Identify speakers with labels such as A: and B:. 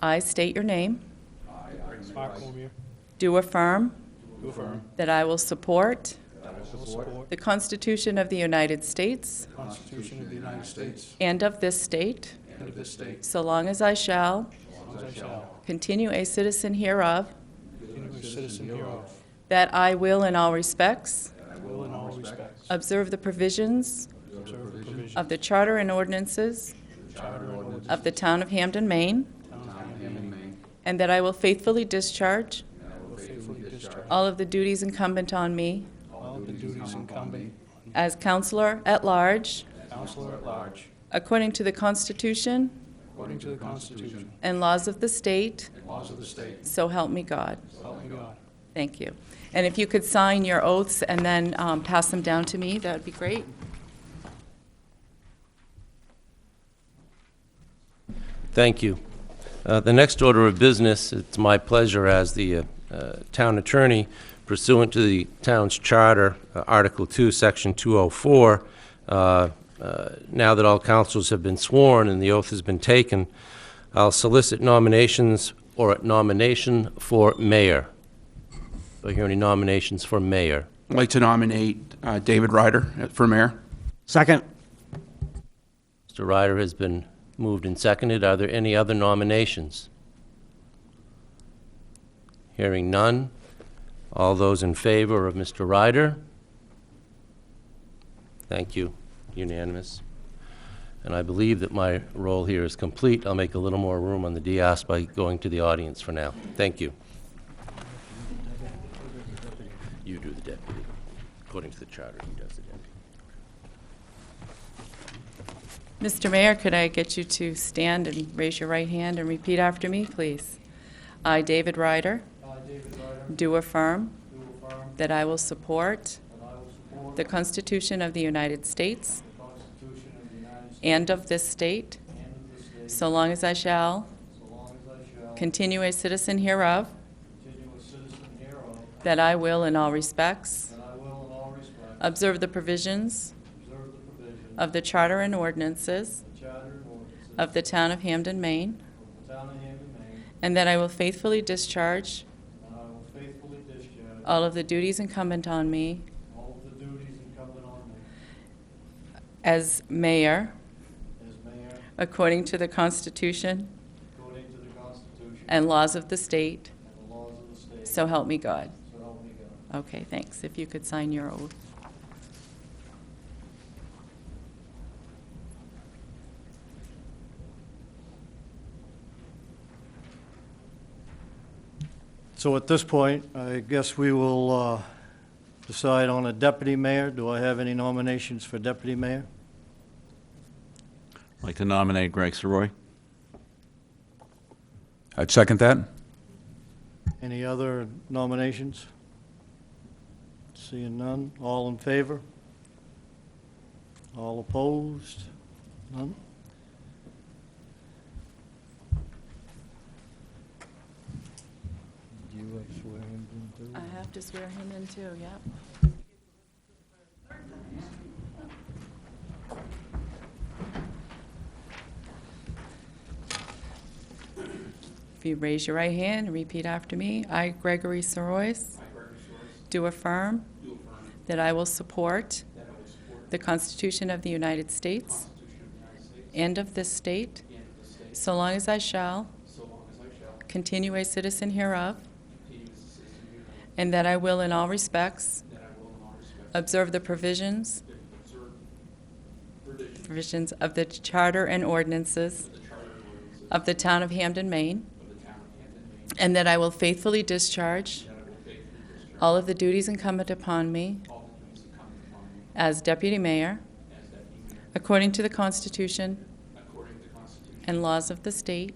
A: I state your name.
B: Mark Cormier,
A: Do affirm
B: do affirm
A: that I will support
B: that I will support
A: the Constitution of the United States
B: the Constitution of the United States
A: and of this state,
B: and of this state,
A: so long as I shall
B: as I shall
A: continue a citizen hereof,
B: continue a citizen hereof,
A: that I will in all respects
B: and will in all respects
A: observe the provisions
B: observe the provisions
A: of the Charter and ordinances of the Town of Hamden, Maine, and that I will faithfully discharge
B: of faithfully discharge
A: all of the duties incumbent on me
B: all of the duties incumbent
A: as Counselor at Large,
B: on Counselor at Large,
A: according to the Constitution
B: according to the Constitution
A: and laws of the state,
B: and laws of the state,
A: so help me God.
B: so help me God.
A: Thank you. And if you could sign your oaths and then um, pass them down to me, that would be great.
C: Thank you. Uh, The next order of business, it's my pleasure as the uh, uh, town attorney pursuant to the town's charter, uh, Article 2, Section 204, uh, uh, now that all councils have been sworn and the oath has been taken, I'll solicit nominations or a nomination for mayor. Do I hear any nominations for mayor?
D: I'd like to nominate uh, David Ryder for mayor.
E: Second.
C: Mr. Ryder has been moved and seconded. Are there any other nominations? Hearing none. All those in favor of Mr. Ryder? Thank you. Unanimous. And I believe that my role here is complete. I'll make a little more room on the dais by going to the audience for now. Thank you. You do the deputy. According to the charter, he does the deputy.
A: Mr. Mayor, could I get you to stand and raise your right hand and repeat after me, please? I, David Ryder. Do affirm. That I will support. The Constitution of the United States. And of this state. So long as I shall. Continue a citizen hereof. That I will in all respects. Observe the provisions. Of the charter and ordinances. Of the town of Hamden, Maine. And that I will faithfully discharge
F: And I will faithfully discharge
A: all of the duties incumbent on me
F: all of the duties incumbent on me
A: as mayor
F: as mayor
A: according to the Constitution
F: according to the Constitution
A: and laws of the state,
F: and the laws of the state,
A: so help me God.
F: so help me God.
A: Okay, thanks. If you could sign your oath.
E: So at this point, I guess we will uh, decide on a deputy mayor. Do I have any nominations for deputy mayor?
G: I'd like to nominate Greg Soroy.
D: I'd second that.
E: Any other nominations? Seeing none. All in favor? All opposed? None? Do you like swear him in, too?
A: I have to swear him in too, yep. If you raise your right hand and repeat after me, I, Gregory Sorois. Do affirm. That I will support. The Constitution of the United States. And of this state. So long as I shall. Continue a citizen hereof. And that I will in all respects. Observe the provisions. Provisions of the charter and ordinances. Of the town of Hamden, Maine. And that I will faithfully discharge. All of the duties incumbent upon me. As deputy mayor. According to the Constitution. And laws of the state.